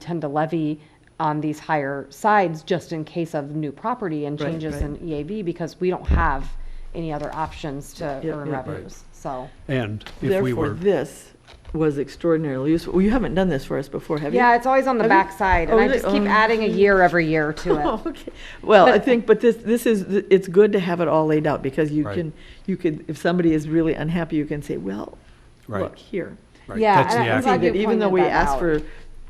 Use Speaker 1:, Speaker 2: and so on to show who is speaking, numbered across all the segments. Speaker 1: tend to levy on these higher sides just in case of new property and
Speaker 2: Right,
Speaker 1: changes
Speaker 2: right.
Speaker 1: in EAV because we don't have any other options to
Speaker 2: yeah,
Speaker 1: earn
Speaker 2: yeah. Right.
Speaker 1: revenues, so.
Speaker 3: And if we
Speaker 2: Therefore,
Speaker 3: were,
Speaker 2: this was extraordinarily useful. Well, You haven't done this for us before, have you?
Speaker 1: Yeah, it's always on the
Speaker 2: Have you-
Speaker 1: backside
Speaker 2: Oh,
Speaker 1: and I
Speaker 2: really?
Speaker 1: just keep
Speaker 2: Oh.
Speaker 1: adding a year every year to it.
Speaker 2: Oh, okay. Well, I think, but this, this is, it's good to have it all laid out because you
Speaker 3: Right.
Speaker 2: can, you could, if somebody is really unhappy, you can say, well,
Speaker 3: Right.
Speaker 2: look here.
Speaker 3: right,
Speaker 1: Yeah,
Speaker 3: that's the
Speaker 1: and I'm
Speaker 3: act-
Speaker 1: glad
Speaker 2: See,
Speaker 1: you
Speaker 2: that even though
Speaker 1: pointed
Speaker 2: we
Speaker 1: that
Speaker 2: asked
Speaker 1: out.
Speaker 2: for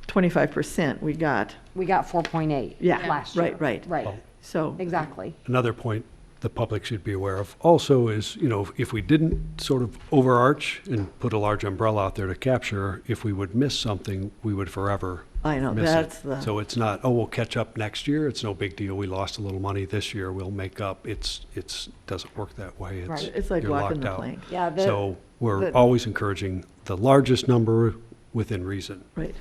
Speaker 2: twenty-five percent, we got,
Speaker 1: We got four point eight
Speaker 2: Yeah,
Speaker 1: last year.
Speaker 2: right, right.
Speaker 1: Right,
Speaker 3: Well,
Speaker 2: so.
Speaker 1: exactly.
Speaker 3: another point the public should be aware of also is, you know, if we didn't sort of overarch and put a large umbrella out there to capture, if we would miss something, we would forever
Speaker 2: I know,
Speaker 3: miss it.
Speaker 2: that's the-
Speaker 3: So it's not, oh, we'll catch up next year, it's no big deal, we lost a little money this year, we'll make up, it's, it's, doesn't work that way. It's-
Speaker 1: Right.
Speaker 2: It's like
Speaker 3: you're
Speaker 2: walking
Speaker 3: locked
Speaker 2: the
Speaker 3: out.
Speaker 2: plank.
Speaker 1: Yeah, the-
Speaker 3: So we're
Speaker 1: the-
Speaker 3: always encouraging the largest number within reason.
Speaker 2: Right.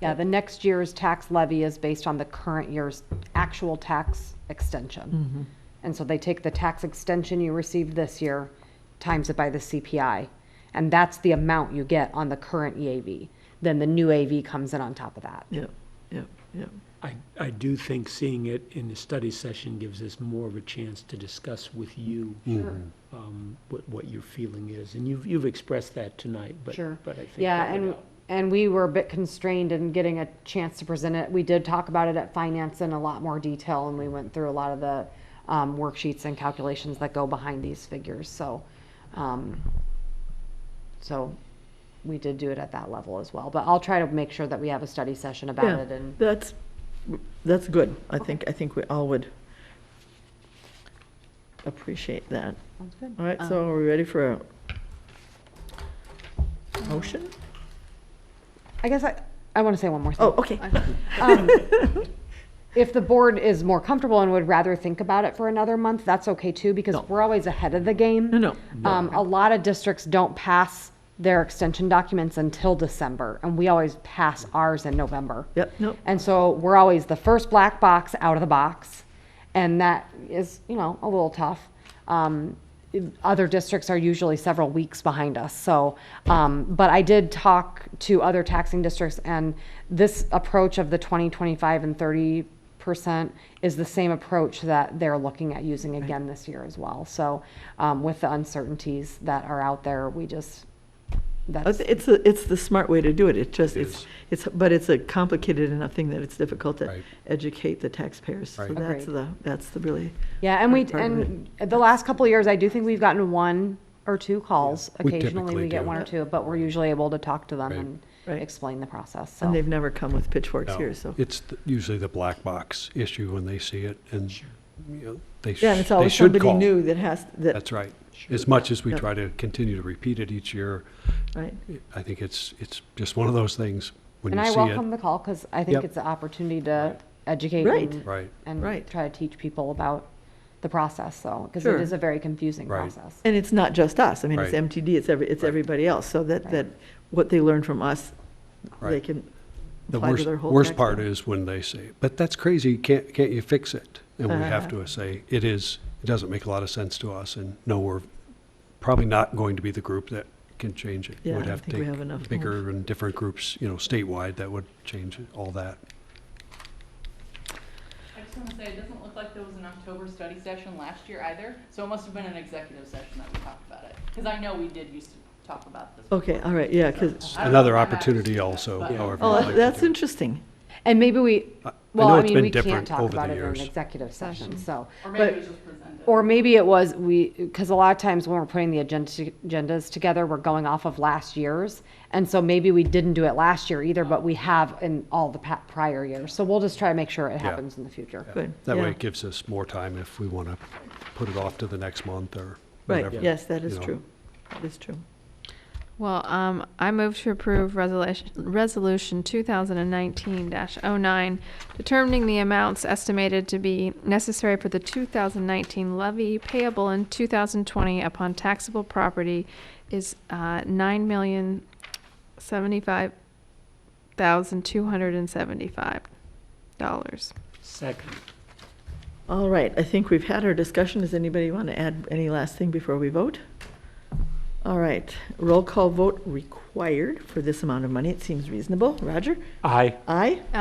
Speaker 1: Yeah, the next year's tax levy is based on the current year's actual tax extension. And so they take the tax extension you received this year, times it by the CPI. And that's the amount you get on the current EAV. Then the new AV comes in on top of that.
Speaker 2: Yeah, yeah, yeah.
Speaker 4: I, I do think seeing it in the study session gives us more of a chance to discuss with you
Speaker 1: Mm-hmm.
Speaker 4: um, what, what your feeling is, and you've, you've expressed that tonight, but,
Speaker 1: Sure.
Speaker 4: but I think.
Speaker 1: Yeah,
Speaker 4: that would
Speaker 1: and,
Speaker 4: help.
Speaker 1: and we were a bit constrained in getting a chance to present it. We did talk about it at finance in a lot more detail, and we went through a lot of the um, worksheets and calculations that go behind these figures, so. um, So we did do it at that level as well, but I'll try to make sure that we have a study session about
Speaker 2: Yeah,
Speaker 1: it and.
Speaker 2: that's, that's good. I think, I think we all would appreciate that.
Speaker 1: Sounds good. Um,
Speaker 2: All right, so are we ready for a motion?
Speaker 1: I guess I, I want to say one more thing.
Speaker 2: Oh, okay.
Speaker 1: if the board is more comfortable and would rather think about it for another month, that's okay too, because we're always ahead of the game.
Speaker 2: No, no. No.
Speaker 1: Um, a lot of districts don't pass their extension documents until December, and we always pass ours in November.
Speaker 2: Yep, nope.
Speaker 1: And so we're always the first black box out of the box, and that is, you know, a little tough. Um, other districts are usually several weeks behind us. So, um, but I did talk to other taxing districts, and this approach of the 20, 25, and 30 percent is the same approach that they're looking at using again this year as well. So, um, with the uncertainties that are out there, we just
Speaker 2: I
Speaker 1: that's
Speaker 2: thi- It's, a- it's the smart way to do it. It just,
Speaker 3: It
Speaker 2: it's,
Speaker 3: is.
Speaker 2: it's, but it's a complicated enough thing that it's difficult to
Speaker 3: Right.
Speaker 2: educate the taxpayers. So
Speaker 3: Right.
Speaker 2: that's
Speaker 1: Agreed.
Speaker 2: the, that's the really.
Speaker 1: Yeah, and we,
Speaker 2: hard part of it.
Speaker 1: and the last couple of years, I do think we've gotten one or two calls.
Speaker 3: We
Speaker 1: Occasionally, we
Speaker 3: typically
Speaker 1: get
Speaker 3: do.
Speaker 1: one or two, but we're usually able to talk to them
Speaker 3: Right.
Speaker 1: and
Speaker 2: Right.
Speaker 1: explain the process, so.
Speaker 2: And they've never come with pitchforks
Speaker 3: No,
Speaker 2: here, so.
Speaker 3: It's th- usually the black box issue when they see it and, you know, they sh-
Speaker 2: Yeah, and it's
Speaker 3: they
Speaker 2: always
Speaker 3: should
Speaker 2: somebody
Speaker 3: call.
Speaker 2: new that has, that,
Speaker 3: That's right. As much as we
Speaker 2: Yeah.
Speaker 3: try to continue to repeat it each year,
Speaker 2: right?
Speaker 3: I think it's, it's just one of those things when
Speaker 1: And
Speaker 3: you
Speaker 1: I
Speaker 3: see it.
Speaker 1: welcome the call, because I think
Speaker 3: Yep.
Speaker 1: it's an opportunity to educate
Speaker 2: Right.
Speaker 1: and-
Speaker 3: Right.
Speaker 1: and
Speaker 2: Right.
Speaker 1: try to teach people about the process, so, because
Speaker 2: Sure.
Speaker 1: it is a very confusing
Speaker 3: Right.
Speaker 1: process.
Speaker 2: And it's not just us. I mean, it's
Speaker 3: Right.
Speaker 2: MTD, it's every, it's
Speaker 3: Right.
Speaker 2: everybody else. So that,
Speaker 1: Right.
Speaker 2: that what they learn from us, they
Speaker 3: Right.
Speaker 2: can
Speaker 3: The
Speaker 2: apply to
Speaker 3: worst,
Speaker 2: their whole.
Speaker 3: worst
Speaker 2: tax
Speaker 3: part
Speaker 2: bill.
Speaker 3: is when they say, but that's crazy, can't, can't you fix it? And we have
Speaker 2: Uh-huh.
Speaker 3: to say, it is, it doesn't make a lot of sense to us and no, we're probably not going to be the group that can change it.
Speaker 2: Yeah,
Speaker 3: We'd
Speaker 2: I
Speaker 3: have to
Speaker 2: think we
Speaker 3: take
Speaker 2: have enough
Speaker 3: Bigger and different groups, you know, statewide that would change all that.
Speaker 5: I just want to say, it doesn't look like there was an October study session last year either, so it must have been an executive session that we talked about it. Because I know we did used to talk about this.
Speaker 2: Okay, all right, yeah, because,
Speaker 5: I don't know
Speaker 3: Another
Speaker 5: if I'm actually
Speaker 3: opportunity
Speaker 5: doing that,
Speaker 3: also,
Speaker 5: but-
Speaker 3: however.
Speaker 2: oh,
Speaker 3: you
Speaker 2: that-
Speaker 3: like to
Speaker 2: that's
Speaker 3: do it.
Speaker 2: interesting.
Speaker 1: And maybe we,
Speaker 3: I- I
Speaker 1: well,
Speaker 3: know
Speaker 1: I
Speaker 3: it's
Speaker 1: mean,
Speaker 3: been
Speaker 1: we can't
Speaker 3: different
Speaker 1: talk
Speaker 3: over the
Speaker 1: about it in an
Speaker 3: years.
Speaker 1: executive session, so.
Speaker 5: Or
Speaker 1: but-
Speaker 5: maybe it was just presented.
Speaker 1: Or maybe it was, we, because a lot of times when we're putting the agenda- agendas together, we're going off of last year's. And so maybe we didn't do it last year either, but we have in all the pa- prior years. So we'll just try to make sure it happens in the future.
Speaker 2: Good.
Speaker 3: That
Speaker 2: yeah.
Speaker 3: way it gives us more time if we want to put it off to the next month or whatever.
Speaker 2: Right, yes, that
Speaker 3: you
Speaker 2: is
Speaker 3: know.
Speaker 2: true. That is true.
Speaker 6: Well, um, I move to approve resolution, resolution two thousand and nineteen 9 determining the amounts estimated to be necessary for the two thousand nineteen levy payable in two thousand twenty upon taxable property is, uh, nine million seventy-five thousand two hundred and seventy-five dollars.
Speaker 4: Second,
Speaker 2: All right, I think we've had our discussion. Does anybody want to add any last thing before we vote? All right, roll call vote required for this amount of money. It seems reasonable. Roger?
Speaker 4: aye.
Speaker 2: Aye?